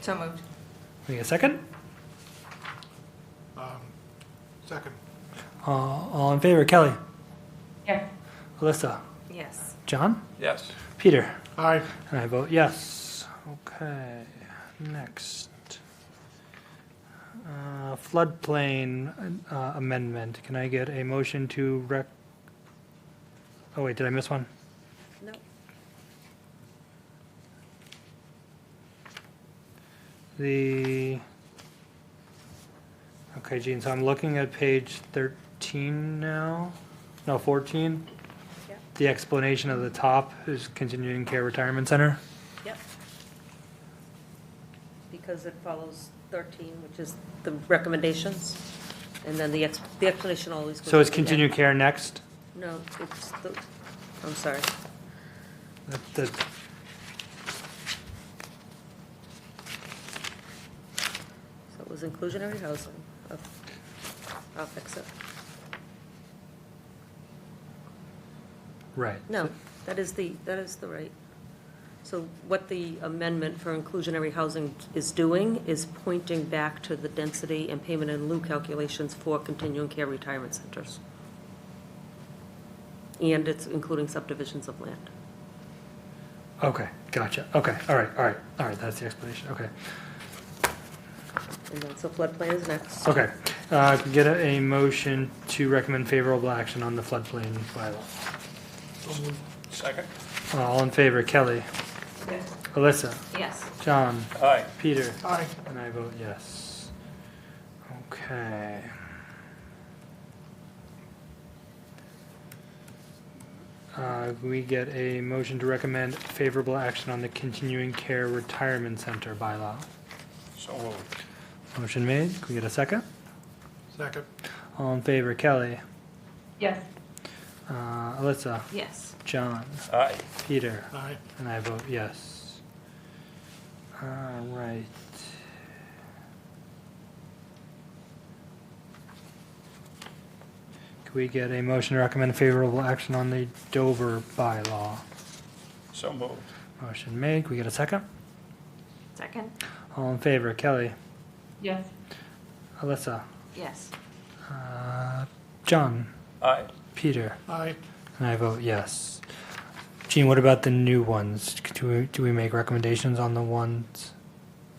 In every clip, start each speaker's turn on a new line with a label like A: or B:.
A: So moved.
B: Need a second?
C: Um, Second.
B: Uh, All in favor, Kelly?
A: Yeah.
B: Alyssa?
A: Yes.
B: John?
D: Yes.
B: Peter?
C: Aye.
B: And I vote yes. Okay, next. Uh, Floodplain uh, amendment. Can I get a motion to rec? Oh, wait, did I miss one?
A: No.
B: The, okay, Gene, so I'm looking at page 13 now, no, 14.
A: Yep.
B: The explanation of the top is continuing care retirement center.
E: Yep. Because it follows 13, which is the recommendations, and then the ex- the explanation always goes.
B: So it's
E: at the end.
B: continued care next?
E: No, it's the, I'm sorry.
B: That- that-
E: So it was inclusionary housing. Oh, I'll fix it.
B: Right.
E: No, that is the, that is the right. So what the amendment for inclusionary housing is doing is pointing back to the density and payment in lieu calculations for continuing care retirement centers. And it's including subdivisions of land.
B: Okay, gotcha. Okay, all right, all right, all right, that's the explanation, okay.
E: And then, so floodplain is next.
B: Okay, uh, can get a a motion to recommend favorable action on the floodplain bylaw.
D: Second.
B: Uh, All in favor, Kelly, Alyssa,
A: Yes.
B: John,
D: Aye.
B: Peter,
C: Aye.
B: and I vote yes. Okay. Uh, we get a motion to recommend favorable action on the continuing care retirement center bylaw.
D: So moved.
B: Motion made, can we get a second?
C: Second.
B: All in favor, Kelly,
A: Yes.
B: uh, Alyssa,
A: Yes.
B: John,
D: Aye.
B: Peter,
C: Aye.
B: and I vote yes. All right. Can we get a motion to recommend favorable action on the Dover bylaw?
D: So moved.
B: Motion made, can we get a second?
A: Second?
B: All in favor, Kelly,
A: Yes.
B: Alyssa,
A: Yes.
B: uh, John,
D: Aye.
B: Peter,
C: Aye.
B: And I vote yes. Gene, what about the new ones? Do we, do we make recommendations on the ones?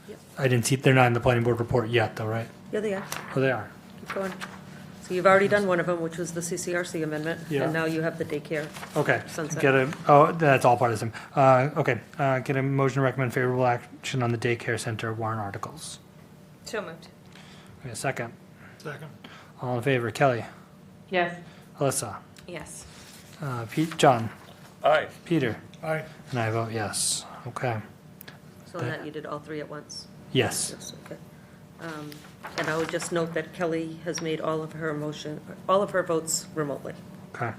E: Yep.
B: I didn't see, they're not in the planning board report yet, though, right?
E: Yeah, they are.
B: Oh, they are.
E: Keep going. So you've already done one of them, which was the CCRC amendment.
B: Yeah.
E: And now you have the daycare.
B: Okay.
E: Sunset.
B: Get a, oh, that's all part of them. Uh, okay, uh, get a motion to recommend favorable action on the daycare center warrant articles.
A: So moved.
B: Wait a second.
C: Second.
B: All in favor, Kelly,
A: Yes.
B: Alyssa,
A: Yes.
B: uh, Pete, John,
D: Aye.
B: Peter,
C: Aye.
B: and I vote yes. Okay.
E: So on that, you did all three at once.
B: Yes.
E: Yes, okay. Um, And I would just note that Kelly has made all of her motion, all of her votes remotely.
B: Okay.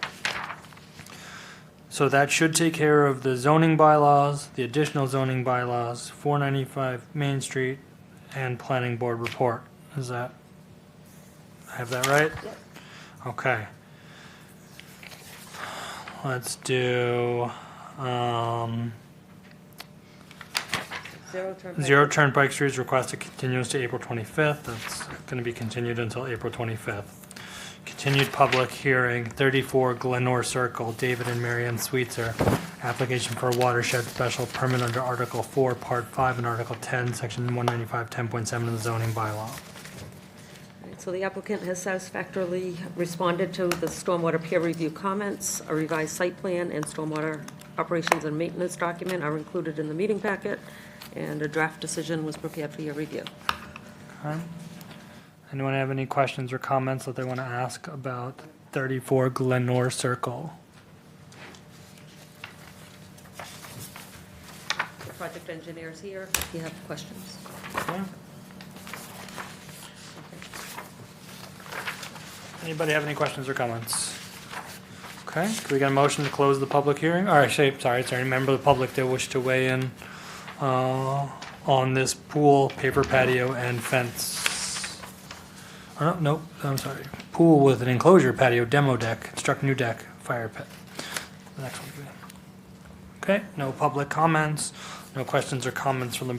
B: So that should take care of the zoning bylaws, the additional zoning bylaws, four ninety-five Main Street, and planning board report. Is that, I have that right?
E: Yep.
B: Okay. Let's do, um,
E: Zero term.
B: Zero Turnpike Street's request to continuance to April twenty-fifth. That's gonna be continued until April twenty-fifth. Continued public hearing, thirty-four Glenore Circle, David and Marianne Sweetser. Application for a watershed special permit under Article four, Part five, and Article ten, Section one ninety-five, ten point seven of the zoning bylaw.
E: So the applicant has satisfactorily responded to the stormwater peer review comments. A revised site plan and stormwater operations and maintenance document are included in the meeting packet, and a draft decision was prepared for your review.
B: Okay. Anyone have any questions or comments that they want to ask about thirty-four Glenore Circle?
E: The project engineer is here, if you have questions.
B: Anybody have any questions or comments? Okay, can we get a motion to close the public hearing? Or actually, sorry, is there any member of the public that wish to weigh in uh, on this pool, paper patio, and fence? Oh, no, nope, I'm sorry. Pool with an enclosure patio, demo deck, construct new deck, fire pit. The next one. Okay, no public comments, no questions or comments from the